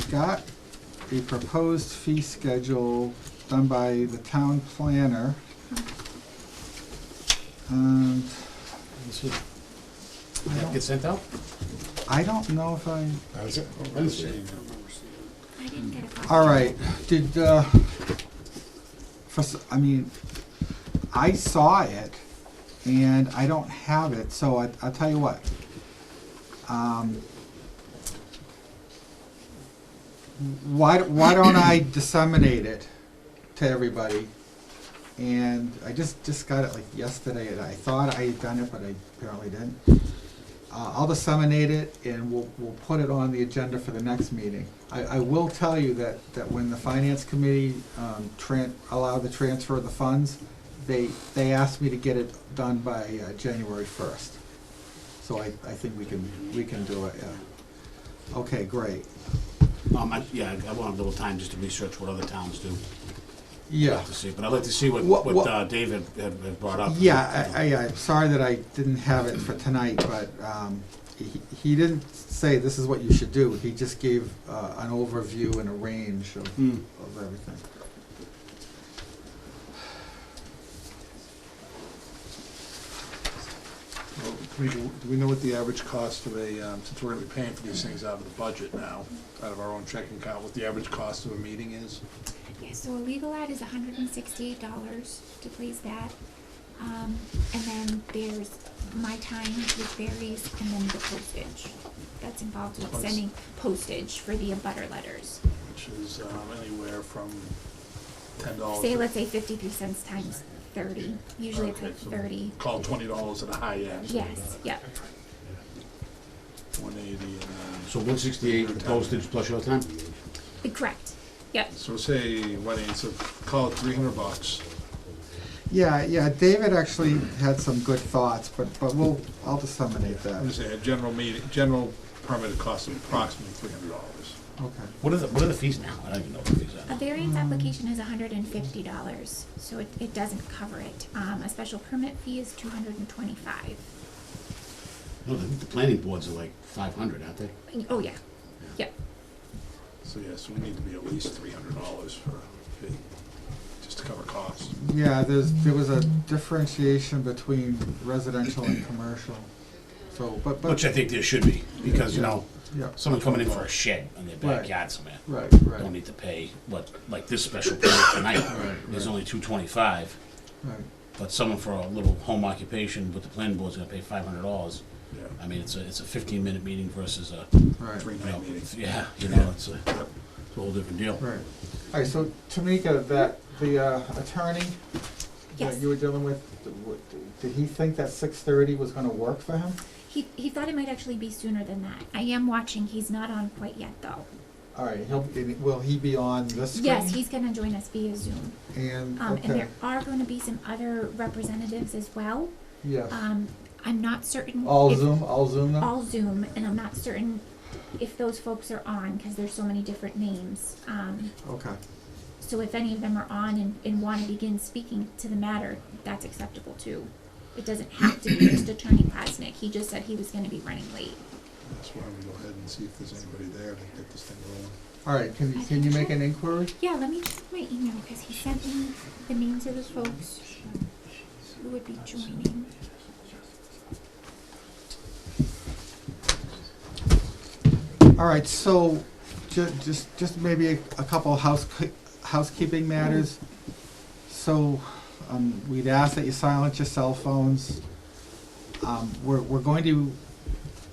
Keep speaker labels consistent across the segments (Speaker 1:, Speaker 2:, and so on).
Speaker 1: Scott, a proposed fee schedule done by the town planner. And
Speaker 2: This is-
Speaker 1: I
Speaker 2: That get
Speaker 1: don't,
Speaker 2: sent out?
Speaker 1: I don't know if I,
Speaker 2: That's it.
Speaker 3: I didn't get a copy.
Speaker 1: all right, did, uh, for, s- I mean, I saw it and I don't have it, so I, I'll tell you what. Um, Why, why don't I disseminate it to everybody? And I just, just got it like yesterday and I thought I had done it, but I apparently didn't. Uh, I'll disseminate it and we'll, we'll put it on the agenda for the next meeting. I, I will tell you that, that when the finance committee, um, tran, allowed the transfer of the funds, they, they asked me to get it done by, uh, January first. So I, I think we can, we can do it, yeah. Okay, great.
Speaker 4: Um, I, yeah, I want a little time just to research what other towns do
Speaker 1: Yeah,
Speaker 4: to see, but I'd like to see what,
Speaker 1: What-
Speaker 4: what
Speaker 1: what-
Speaker 4: uh, Dave had, had had brought up.
Speaker 1: yeah, I, I, I'm sorry that I didn't have it for tonight, but, um, he, he didn't say this is what you should do. He just gave, uh, an overview and a range of,
Speaker 4: Hmm.
Speaker 1: of everything.
Speaker 5: Well, Do we- do we know what the average cost of a, um, since we're gonna be paying for these things out of the budget now, out of our own checking account, what the average cost of a meeting is?
Speaker 3: Yeah, so a legal ad is hundred and sixty-eight dollars to please that. Um, and then there's my time, which varies, and then the postage. That's involved with
Speaker 5: Post-
Speaker 3: sending postage for the abutter letters.
Speaker 5: Which is um, anywhere from ten dollars.
Speaker 3: Say, let's say fifty-three cents times thirty, usually it's like thirty.
Speaker 5: Call twenty dollars at a high end.
Speaker 3: Yes, yep,
Speaker 5: One eighty and, um,
Speaker 4: So one sixty-eight postage plus your time?
Speaker 3: correct, yep.
Speaker 5: so say, what, it's a, call it three hundred bucks.
Speaker 1: Yeah, yeah, David actually had some good thoughts, but, but we'll, I'll disseminate
Speaker 5: I'm gonna
Speaker 1: that.
Speaker 5: say a general meeting, general permit cost of approximately three hundred dollars.
Speaker 1: Okay.
Speaker 4: What are the, what are the fees now? I don't even know what the fees
Speaker 3: A
Speaker 4: are.
Speaker 3: variance application is hundred and fifty dollars, so it, it doesn't cover it. Um, a special permit fee is two hundred and twenty-five.
Speaker 4: No, I think the planning boards are like five hundred, aren't they?
Speaker 3: Oh, yeah, yep.
Speaker 5: So yes, we need to be at least three hundred dollars for a fee, just to cover costs.
Speaker 1: Yeah, there's, there was a differentiation between residential and commercial, so, but, but,
Speaker 4: Which I think there should be, because, you know,
Speaker 1: yeah,
Speaker 4: someone coming in for a shed on their
Speaker 1: Right.
Speaker 4: backyard somewhere.
Speaker 1: right,
Speaker 4: Don't
Speaker 1: right,
Speaker 4: need to pay what, like this special permit tonight, is only two twenty-five,
Speaker 1: right.
Speaker 4: but someone for a little home occupation with the planning board's gonna pay five hundred dollars.
Speaker 5: Yeah.
Speaker 4: I mean, it's a, it's a fifteen-minute meeting versus a,
Speaker 1: Right,
Speaker 5: Three
Speaker 4: you know,
Speaker 5: night meeting.
Speaker 4: yeah, you know, it's a, it's a whole different deal.
Speaker 1: right. All right, so Tamika, that, the uh, attorney that
Speaker 3: Yes.
Speaker 1: you were dealing with, what- did he think that six thirty was gonna work for him?
Speaker 3: He, he thought it might actually be sooner than that. I am watching. He's not on quite yet, though.
Speaker 1: All right, he'll, will he be on this screen?
Speaker 3: Yes, he's going to join us via Zoom.
Speaker 1: And,
Speaker 3: Um, And
Speaker 1: okay,
Speaker 3: there are going to be some other representatives as well.
Speaker 1: yes.
Speaker 3: Um, I'm not certain.
Speaker 1: All
Speaker 3: if-
Speaker 1: Zoom, all Zoom now?
Speaker 3: All Zoom, and I'm not certain if those folks are on because there's so many different names. Um,
Speaker 1: Okay,
Speaker 3: so if any of them are on and, and want to begin speaking to the matter, that's acceptable too. It doesn't have to be just Attorney Klasnick. He just said he was going to be running late.
Speaker 5: That's why we go ahead and see if there's anybody there to get this thing rolling.
Speaker 1: all right, can, you- can you make an inquiry?
Speaker 3: Yeah, let me check my email because he sent me the names of the folks who would be joining.
Speaker 1: All right, so ju- just, just maybe a a couple house, housekeeping matters. So, um, we'd ask that you silence your cell phones. Um, we're, we're going to,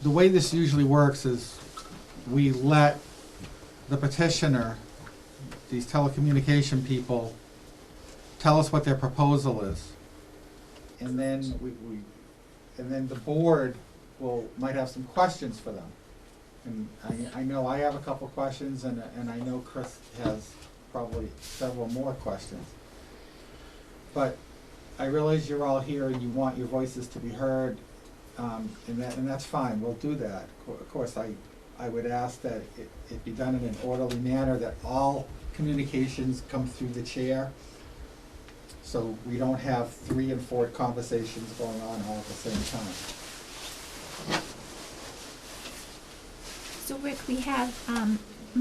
Speaker 1: the way this usually works is we let the petitioner, these telecommunication people, tell us what their proposal is. And then we, we, and then the board will, might have some questions for them. And I, I know I have a couple questions and, and I know Chris has probably several more questions. But I realize you're all here and you want your voices to be heard, um, and that, and that's fine, we'll do that. Co- Of course, I, I would ask that it, it be done in an orderly manner, that all communications come through the chair. So we don't have three and four conversations going on all at the same time.
Speaker 3: So Rick, we have, um,